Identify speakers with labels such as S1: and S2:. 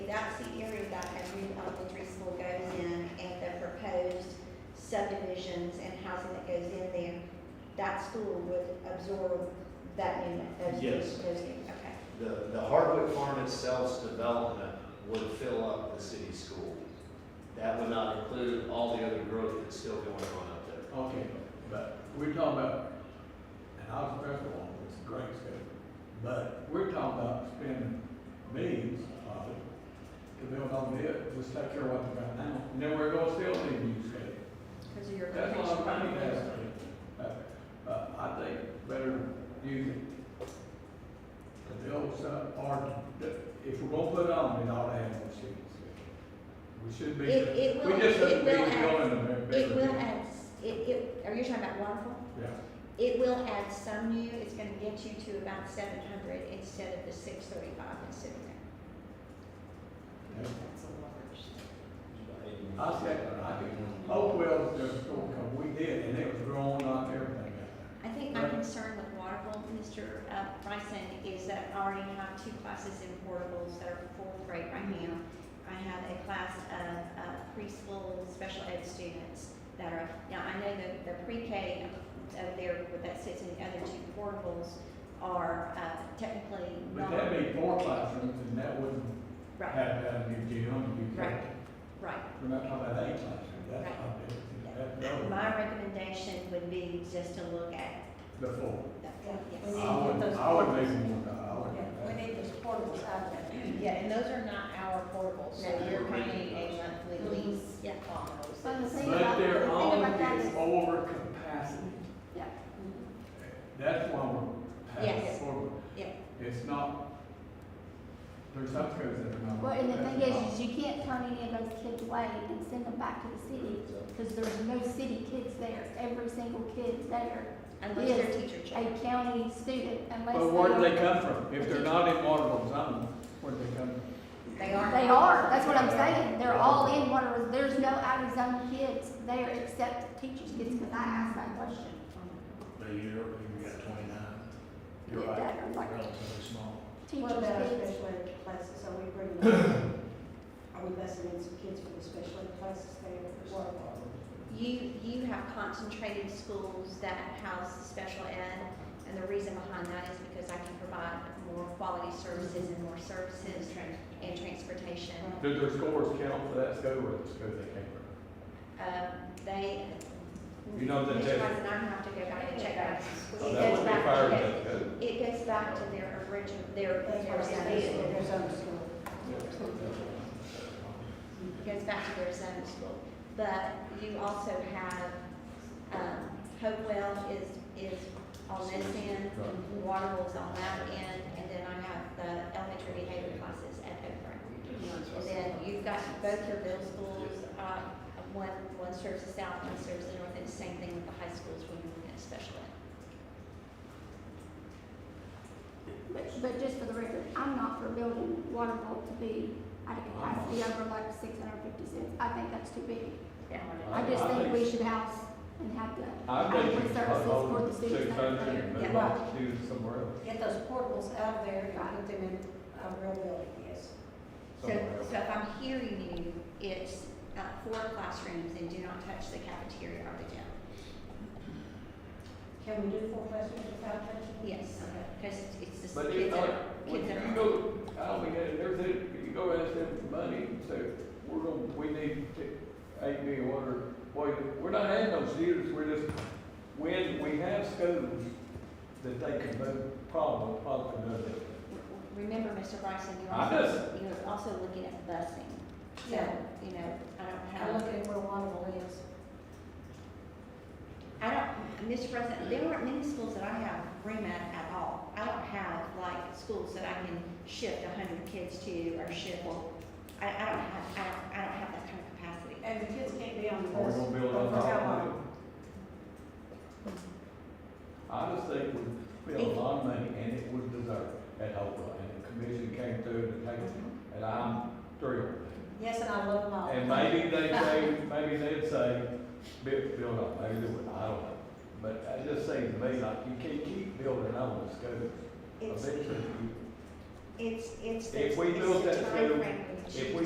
S1: that school would absorb that new those new,
S2: Yes.
S1: those new, okay.
S2: The, the Hardwick Farm itself's development would fill up the city school. That would not include all the other growth that's still going on up there.
S3: Okay, but we're talking about, and I was pressed on this great schedule, but we're talking about spending millions of it to build on it, just take care of what we got now, and then we're gonna still need new schedule.
S1: Because of your
S3: That's
S1: location.
S3: what I'm trying to ask. But, but I think better use it to build some, or the- if we're gonna put it on, it ought to have more students. We should be,
S1: It- it
S3: we
S1: will-
S3: just
S1: it
S3: shouldn't be
S1: will add-
S3: building a big.
S1: It will add, s- it, it, are you talking about waterfall?
S3: Yeah.
S1: It will add some new, it's gonna get you to about seven hundred instead of the six thirty-five that's sitting there.
S3: Yeah.
S1: That's a large.
S3: I said, I think Hope Wells just going come, we did, and it was growing on everything.
S1: I think my
S3: Right.
S1: concern with Waterville, Mr. uh, Bryson, is that I already have two classes in portables that are fourth grade right now. I have a class of uh, preschool special ed students that are, now I know that the pre-K of their, that sits in the other two portables are uh, technically
S3: But
S1: not.
S3: that'd be four classrooms, and that wouldn't
S1: Right,
S3: have that new gym, you
S1: Right.
S3: could,
S1: right.
S3: we're not talking about eight classrooms, that's
S1: Right.
S3: not it, that's
S1: My recommendation would be just to look at
S3: the four.
S1: the,
S4: We
S1: yes.
S4: need
S3: I
S4: to get
S3: would,
S4: those
S3: I would
S4: portables.
S3: make more, I would.
S4: Yeah,
S3: do
S4: we
S3: that.
S4: need those portables out there.
S5: Yeah, and those are not our portables, so
S1: No,
S5: you're
S2: we're renting
S5: paying a monthly
S4: Mhm.
S5: lease
S1: Yeah.
S5: on
S4: But the
S5: those.
S4: thing
S3: But
S4: about, the
S3: they're
S4: thing
S3: all
S4: about that
S3: is
S4: is,
S3: over capacity.
S4: yeah.
S3: That's why we're
S1: Yes.
S3: passing forward.
S1: Yeah.
S3: It's not, there's some codes that are not.
S6: Well, and the thing
S3: that's
S6: is,
S3: not-
S6: is you can't turn any of those kids away and send them back to the city, because there's no city kids there. Every single kid there,
S1: Unless
S6: Yes.
S1: their teacher
S6: a
S1: changed.
S6: county student, unless.
S3: But where do
S6: are-
S3: they come from? If they're not in Waterville zone, where do they come from?
S1: They are.
S6: They are, that's what I'm saying. They're all in Water, there's no out of zone kids there except teachers' kids, because I asked that question.
S7: But you're, you've got twenty-nine. You're
S6: Yeah,
S7: right,
S6: that or like-
S7: relatively small.
S4: What
S6: Teachers'
S4: about our
S6: kids.
S4: special ed classes, are we bringing, them- are we busing in some kids for the special ed classes there as well?
S1: You, you have concentrated schools that house special ed, and the reason behind that is because I can provide more quality services and more services and transportation.
S3: Do their scores count for that school or the school they came from?
S1: Um, They.
S3: You know that
S1: Mr.
S3: they-
S1: Bryson, I have to go back and check that.
S3: Oh,
S1: It
S3: that
S1: goes
S3: would be
S1: back to
S3: fire
S1: their-
S3: and code.
S1: It goes back to their original, their,
S4: That's
S1: their
S4: what I'm saying,
S1: zone.
S4: there's own school.
S1: It goes back to their zone school. But you also have, um, Hopewell is, is on this end, Waterville's on that end, and then I have the elementary behavior classes at Oakburn. And then you've got both your middle schools, uh, one, one serves the south, one serves the north, and same thing with the high schools when you're looking at special ed.
S6: But, but just for the record, I'm not for building water vault to be at a capacity over like six hundred fifty cents. I think that's too big. I just think we should house and have the
S3: I think
S6: adequate
S3: it's
S6: services for the
S3: about
S6: students
S3: six
S6: that are
S3: hundred
S6: there.
S3: and
S1: Yeah.
S3: move on to somewhere else.
S4: Get those portables out of there and put them in a real building, yes.
S1: So,
S3: somewhere else.
S1: so if I'm hearing you, it's, uh, four classrooms and do not touch the cafeteria or the gym.
S4: Can we do four classrooms without touching? them?
S1: Yes, because it's the kids
S3: But if
S1: that
S3: not,
S1: are,
S3: when
S1: kids that
S3: you
S1: are.
S3: go, I don't think that, there's it, you go ask them for money, and say, we're gonna, we need to, eight million, or, boy, we're not adding those years, we're just, when we have schools that they can move, probably, probably move it.
S1: Remember, Mr. Bryson, you're
S3: I
S1: also, you're also looking at busing. So,
S4: Yeah.
S1: you know, I don't
S4: I'm
S1: have,
S4: looking at where one of them is.
S1: I don't, Mr. Bryson, there aren't many schools that I have room at at all. I don't have like schools that I can shift a hundred kids to or shift, I, I don't have, I don't, I don't have that kind of capacity.
S4: And the kids can't be on the
S3: Or
S4: bus.
S3: we're gonna build on
S4: for
S3: top
S4: how
S3: of it.
S4: long?
S3: I just think we spent a lot of money and it was deserved at Hopewell, and the commission came through and they, and I'm thrilled.
S4: Yes, and I love them all.
S3: And maybe they say, maybe they'd say, build, build up, maybe they would, I don't know. But it just seems to me like you can't keep building on the schools.
S1: It's,
S3: Eventually, you-
S1: it's, it's.
S3: If we
S1: it's
S3: built
S1: the
S3: that school,
S1: timeframe we should